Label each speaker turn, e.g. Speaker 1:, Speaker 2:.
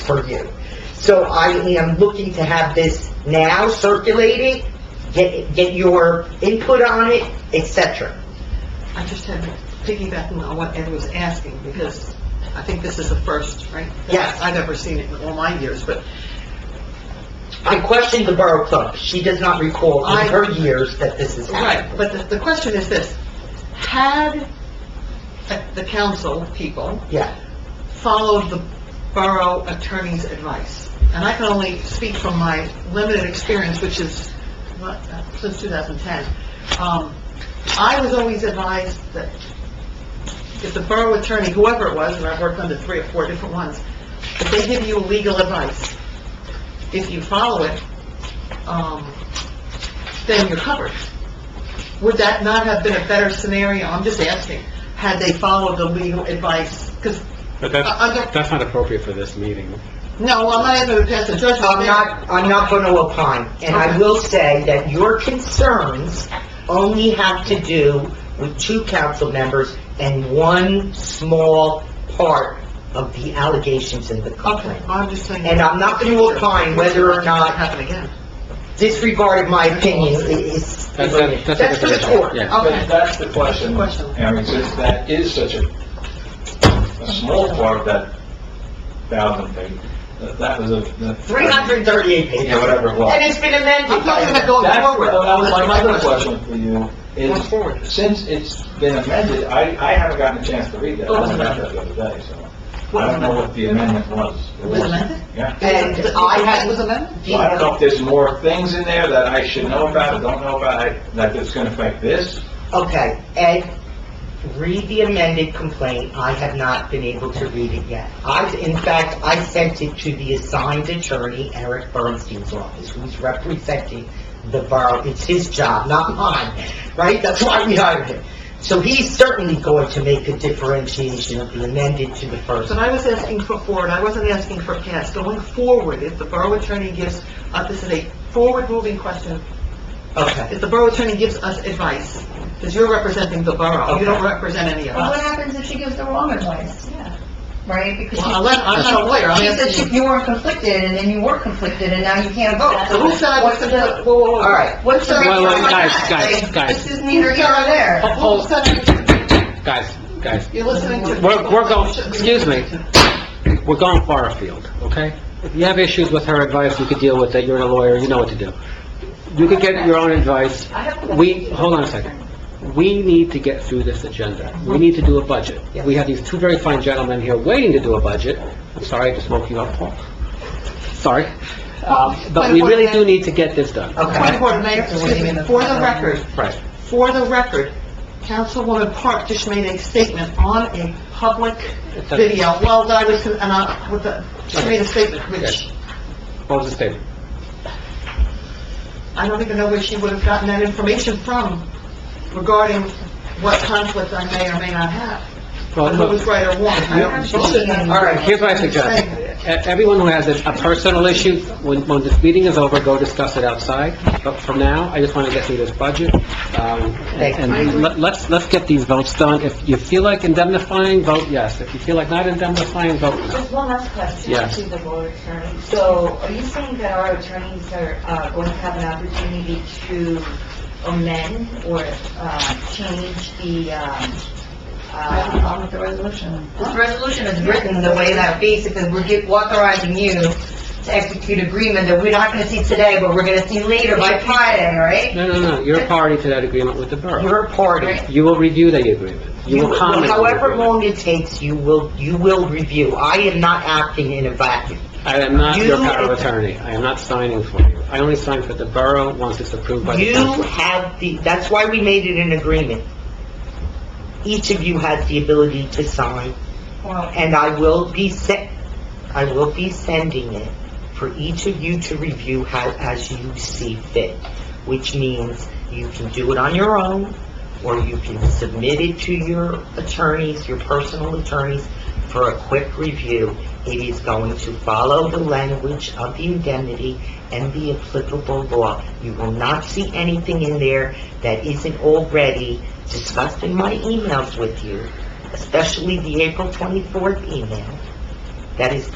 Speaker 1: purview. So I am looking to have this now circulated, get, get your input on it, et cetera.
Speaker 2: I just had piggybacking on what Ed was asking, because I think this is the first, right?
Speaker 1: Yes.
Speaker 2: I've ever seen it in all my years, but
Speaker 1: I questioned the Borough Clerk. She does not recall in her years that this has
Speaker 2: Right,
Speaker 1: happened.
Speaker 2: but the, the question is this, had the- the council people
Speaker 1: Yeah,
Speaker 2: followed the borough attorney's advice? And I can only speak from my limited experience, which is, what, uh, since 2010. Um, I was always advised that if the borough attorney, whoever it was, and I've worked under three or four different ones, if they give you legal advice, if you follow it, um, then you're covered. Would that not have been a better scenario? I'm just asking, had they followed the legal advice? Because,
Speaker 3: But
Speaker 2: Uh, okay.
Speaker 3: that's, that's not appropriate for this meeting.
Speaker 2: no, I'm not even going to pass a judgment.
Speaker 1: I'm not, I'm not going to opine, and I will say that your concerns only have to do with two council members and one small part of the allegations in the
Speaker 2: Okay,
Speaker 1: complaint.
Speaker 2: I'm just saying.
Speaker 1: And I'm not gonna opine whether or not-
Speaker 2: Happen again.
Speaker 1: Disregard of my opinion i- is,
Speaker 3: That's- that's- that's a
Speaker 1: that's for the
Speaker 3: different-
Speaker 1: court.
Speaker 3: yeah.
Speaker 2: Okay.
Speaker 4: That- That's the question.
Speaker 2: That's the question.
Speaker 4: I mean, since that is such a, a small part of that thousand thing, that- that was a... the-
Speaker 1: 338 pages.
Speaker 4: Yeah, whatever it was.
Speaker 1: And it's been amended.
Speaker 2: I'm not gonna go
Speaker 4: That,
Speaker 2: forward.
Speaker 4: well, that was my other question for you,
Speaker 2: Going
Speaker 4: is,
Speaker 2: forward.
Speaker 4: since it's been amended, I, I haven't gotten a chance to read that.
Speaker 2: Oh,
Speaker 4: I only got that the other day, so I don't know what the amendment was.
Speaker 2: It was amended? Uh,
Speaker 4: Yeah.
Speaker 1: And I
Speaker 2: It was
Speaker 1: had,
Speaker 2: amended?
Speaker 4: Well, I don't know if there's more things in there that I should know about, don't know about, I- that it's gonna affect this.
Speaker 1: okay, Ed, read the amended complaint. I have not been able to read it yet. I, in fact, I sent it to the assigned attorney, Eric Bernstein's office, who's representing the borough. It's his job, not mine, right? That's why we hired him. So he's certainly going to make a differentiation of the amended to the first.
Speaker 2: But I was asking for forward, I wasn't asking for past. Going forward, if the borough attorney gives, uh, this is a forward-moving question,
Speaker 1: Okay.
Speaker 2: if the borough attorney gives us advice, because you're representing the borough, you don't represent any of
Speaker 5: Well, what
Speaker 2: us.
Speaker 5: happens if she gives the wrong advice? Yeah. Right? Because
Speaker 2: Well,
Speaker 5: she-
Speaker 2: I'm not- I'm not a lawyer, I'm
Speaker 5: She said
Speaker 2: asking.
Speaker 5: she- you weren't conflicted, and then you were conflicted, and now you can't vote.
Speaker 2: Oh, So who side was
Speaker 5: What's
Speaker 2: the,
Speaker 5: the...
Speaker 2: whoa, whoa, whoa.
Speaker 1: All right.
Speaker 5: What's the...
Speaker 3: Wait, wait,
Speaker 5: reason?
Speaker 3: guys, guys, guys.
Speaker 5: This is neither here nor there.
Speaker 3: Hold-
Speaker 2: Who's side,
Speaker 3: Guys, guys,
Speaker 2: you're listening to...
Speaker 3: We're- we're going- excuse me. we're going far afield, okay? If you have issues with her advice, you could deal with it, you're a lawyer, you know what to do. You could get your own advice. We, hold on a second. We need to get through this agenda. We need to do a budget. We have these two very fine gentlemen here waiting to do a budget. I'm sorry, I just woke you up, Paul. Sorry. Um, But we really do need to get this done.
Speaker 2: Point of
Speaker 1: Okay.
Speaker 2: order, Mayor, excuse me, for the record,
Speaker 3: Right.
Speaker 2: For the record, Councilwoman Park just made a statement on a public video, well, that I was, and I, with the, she made a statement, which,
Speaker 3: What was the statement?
Speaker 2: I don't even know where she would have gotten that information from regarding what conflict I may or may not have,
Speaker 3: Well,
Speaker 2: and who was
Speaker 3: look,
Speaker 2: right or wrong. I don't have to-
Speaker 3: All right, here's what I suggest. E- Everyone who has a a personal issue, when, when this meeting is over, go discuss it outside. But for now, I just want to get through this budget. Um, And and let- let's, let's get these votes done. If you feel like indemnifying, vote yes. If you feel like not indemnifying, vote no.
Speaker 6: Just one last question
Speaker 3: Yes.
Speaker 6: to the board attorney. So are you saying that our attorneys are uh, going to have an opportunity to amend or uh, change the, um,
Speaker 5: I have a
Speaker 6: uh,
Speaker 5: problem with the resolution. This resolution is written the way that basically we're get- authorizing you to execute agreement that we're not gonna see today, but we're gonna see later by Friday, right?
Speaker 3: No, no, no, you're a party to that agreement with the borough.
Speaker 1: You're a party.
Speaker 3: You will review the agreement. You will comment on the
Speaker 1: However
Speaker 3: agreement.
Speaker 1: long it takes, you will, you will review. I am not acting in a vacuum.
Speaker 3: I am not your
Speaker 1: You-
Speaker 3: power of attorney. I am not signing for you. I only sign for the borough once it's approved by the
Speaker 1: You
Speaker 3: council.
Speaker 1: have the, that's why we made it an agreement. Each of you has the ability to sign,
Speaker 5: Well,
Speaker 1: and I will be se, I will be sending it for each of you to review how, as you see fit, which means you can do it on your own, or you can submit it to your attorneys, your personal attorneys, for a quick review. It is going to follow the language of the indemnity and the applicable law. You will not see anything in there that isn't already discussed in my emails with you, especially the April 24th email, that is